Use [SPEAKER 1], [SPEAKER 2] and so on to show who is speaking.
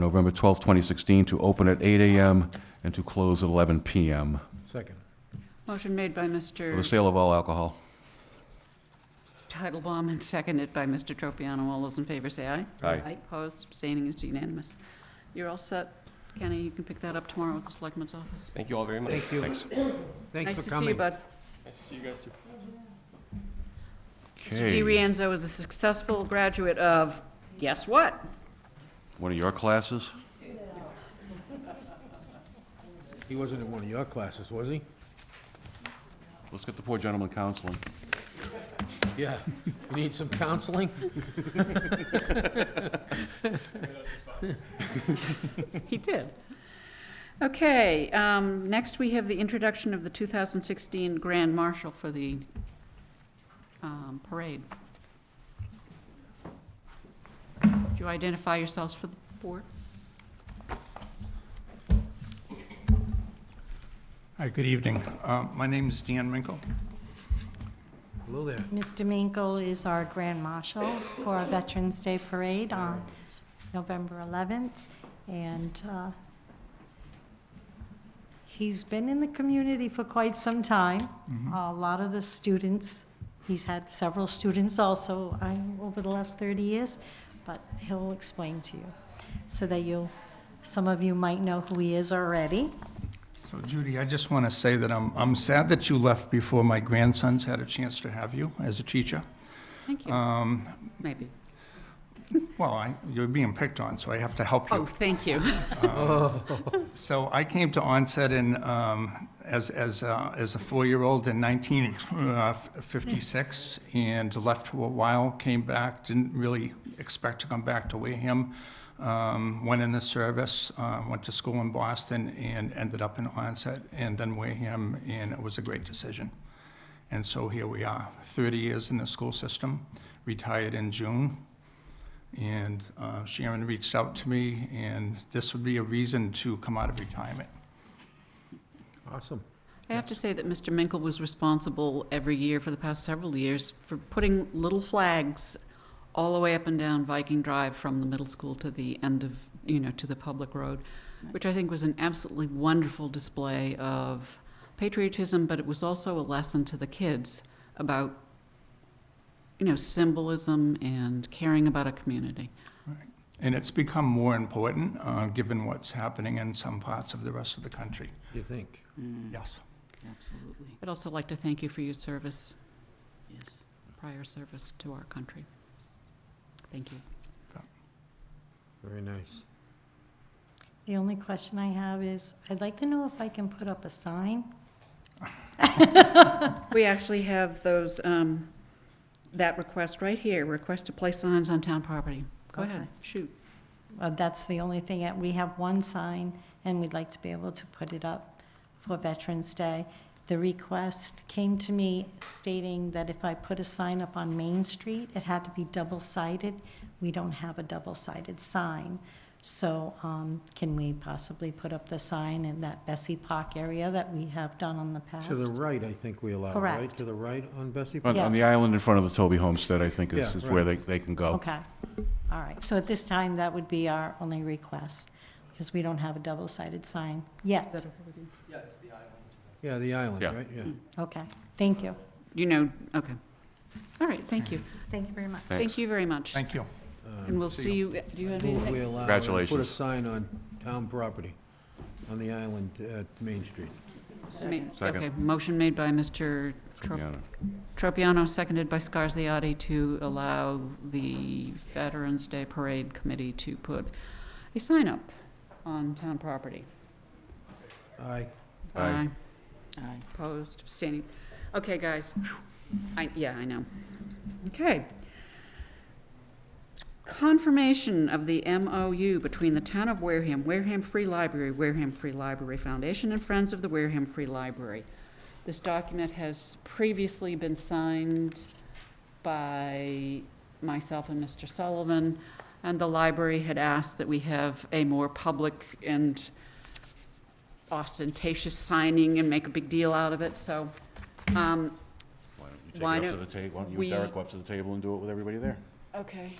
[SPEAKER 1] November 12, 2016, to open at 8 a.m. and to close at 11 p.m.
[SPEAKER 2] Second.
[SPEAKER 3] Motion made by
[SPEAKER 1] for the
[SPEAKER 3] Mr.
[SPEAKER 1] sale of all alcohol.
[SPEAKER 3] Titlebaum and seconded by Mr. Tropiano. All those in favor say aye.
[SPEAKER 1] Aye.
[SPEAKER 3] Opposed, abstaining, it's unanimous. You're all set. Kenny, you can pick that up tomorrow at the Selectmen's office.
[SPEAKER 4] Thank you all very much.
[SPEAKER 2] Thank you.
[SPEAKER 1] Thanks.
[SPEAKER 2] Thanks for
[SPEAKER 3] Nice to see you,
[SPEAKER 2] coming.
[SPEAKER 3] bud.
[SPEAKER 4] Nice to see you guys too.
[SPEAKER 3] Mr. Di
[SPEAKER 1] Okay.
[SPEAKER 3] Rienzo is a successful graduate of, guess what?
[SPEAKER 1] One of your classes?
[SPEAKER 2] He wasn't in one of your classes, was he?
[SPEAKER 1] Let's get the poor gentleman counseling.
[SPEAKER 2] Yeah. You need some counseling?
[SPEAKER 3] He did. Okay, um, next we have the introduction of the 2016 Grand Marshal for the um, parade. Do you identify yourselves for the board?
[SPEAKER 5] Hi, good evening. Uh, My name is Dan Minkle.
[SPEAKER 2] Hello there.
[SPEAKER 6] Mr. Minkle is our Grand Marshal for our Veterans Day Parade on November 11th, and uh, he's been in the community for quite some time. A lot of the students, he's had several students also I- over the last 30 years, but he'll explain to you, so that you'll, some of you might know who he is already.
[SPEAKER 5] So Judy, I just want to say that I'm I'm sad that you left before my grandsons had a chance to have you as a teacher.
[SPEAKER 3] Thank you. Maybe.
[SPEAKER 5] Well, I- you're being picked on, so I have to help
[SPEAKER 3] Oh,
[SPEAKER 5] you.
[SPEAKER 3] thank you.
[SPEAKER 5] So I came to Onset in, um, as as uh, as a four-year-old in 1956, and left for a while, came back, didn't really expect to come back to Wareham. Um, Went in the service, uh, went to school in Boston, and ended up in Onset, and then Wareham, and it was a great decision. And so here we are, 30 years in the school system, retired in June. And uh, Sharon reached out to me, and this would be a reason to come out of retirement.
[SPEAKER 2] Awesome.
[SPEAKER 3] I have to say that Mr. Minkle was responsible every year for the past several years for putting little flags all the way up and down Viking Drive from the middle school to the end of, you know, to the public road, which I think was an absolutely wonderful display of patriotism, but it was also a lesson to the kids about, you know, symbolism and caring about a community.
[SPEAKER 5] And it's become more important, uh, given what's happening in some parts of the rest of the country.
[SPEAKER 2] You think?
[SPEAKER 5] Yes.
[SPEAKER 7] Absolutely,
[SPEAKER 3] I'd also like to thank you for your service,
[SPEAKER 7] yes.
[SPEAKER 3] prior service to our country. Thank you.
[SPEAKER 2] Very nice.
[SPEAKER 6] The only question I have is, I'd like to know if I can put up a sign
[SPEAKER 3] We actually have those, um, that request right here, request to place signs on town property. Go ahead,
[SPEAKER 6] Okay.
[SPEAKER 3] shoot.
[SPEAKER 6] Uh, That's the only thing, uh, we have one sign, and we'd like to be able to put it up for Veterans Day. The request came to me stating that if I put a sign up on Main Street, it had to be double-sided. We don't have a double-sided sign, so um, can we possibly put up the sign in that Bessie Park area that we have done on the past?
[SPEAKER 2] To the right, I think we allow, right?
[SPEAKER 6] Correct.
[SPEAKER 2] To the right on Bessie?
[SPEAKER 1] On on the
[SPEAKER 6] Yes.
[SPEAKER 1] island in front of the Toby Homestead, I think, is
[SPEAKER 2] Yeah,
[SPEAKER 1] is where they
[SPEAKER 2] right.
[SPEAKER 1] they can
[SPEAKER 2] oh.
[SPEAKER 1] go.
[SPEAKER 6] Okay, all right, so at this time, that would be our only request, because we don't have a double-sided sign yet.
[SPEAKER 2] Yeah, the island,
[SPEAKER 1] Yeah.
[SPEAKER 2] right? Yeah.
[SPEAKER 6] Okay, thank you,
[SPEAKER 3] You know, okay. All right, thank you.
[SPEAKER 6] thank you very much.
[SPEAKER 3] Thank you very much.
[SPEAKER 5] Thank you.
[SPEAKER 3] And we'll see you, do you have
[SPEAKER 2] Move we
[SPEAKER 3] anything?
[SPEAKER 2] allow and Put a
[SPEAKER 1] Congratulations.
[SPEAKER 2] sign on town property, on the island at Main Street.
[SPEAKER 3] Ma-
[SPEAKER 1] Second.
[SPEAKER 3] Okay, motion made by Mr. Trop-
[SPEAKER 1] Yeah.
[SPEAKER 3] Tropiano, seconded by Scarsiotti to allow the Veterans Day Parade Committee to put a sign up on town property.
[SPEAKER 2] Aye.
[SPEAKER 1] Aye.
[SPEAKER 7] Aye.
[SPEAKER 3] Opposed, abstaining. Okay, guys. I, yeah, I know. Okay. Confirmation of the MOU between the Town of Wareham, Wareham Free Library, Wareham Free Library Foundation, and Friends of the Wareham Free Library. This document has previously been signed by myself and Mr. Sullivan, and the library had asked that we have a more public and ostentatious signing and make a big deal out of it, so, um,
[SPEAKER 1] Why don't you
[SPEAKER 3] Why
[SPEAKER 1] take it up to
[SPEAKER 3] don't
[SPEAKER 1] the table, why don't you
[SPEAKER 3] we-
[SPEAKER 1] and Derek go up to the table and do it with everybody there?
[SPEAKER 3] okay.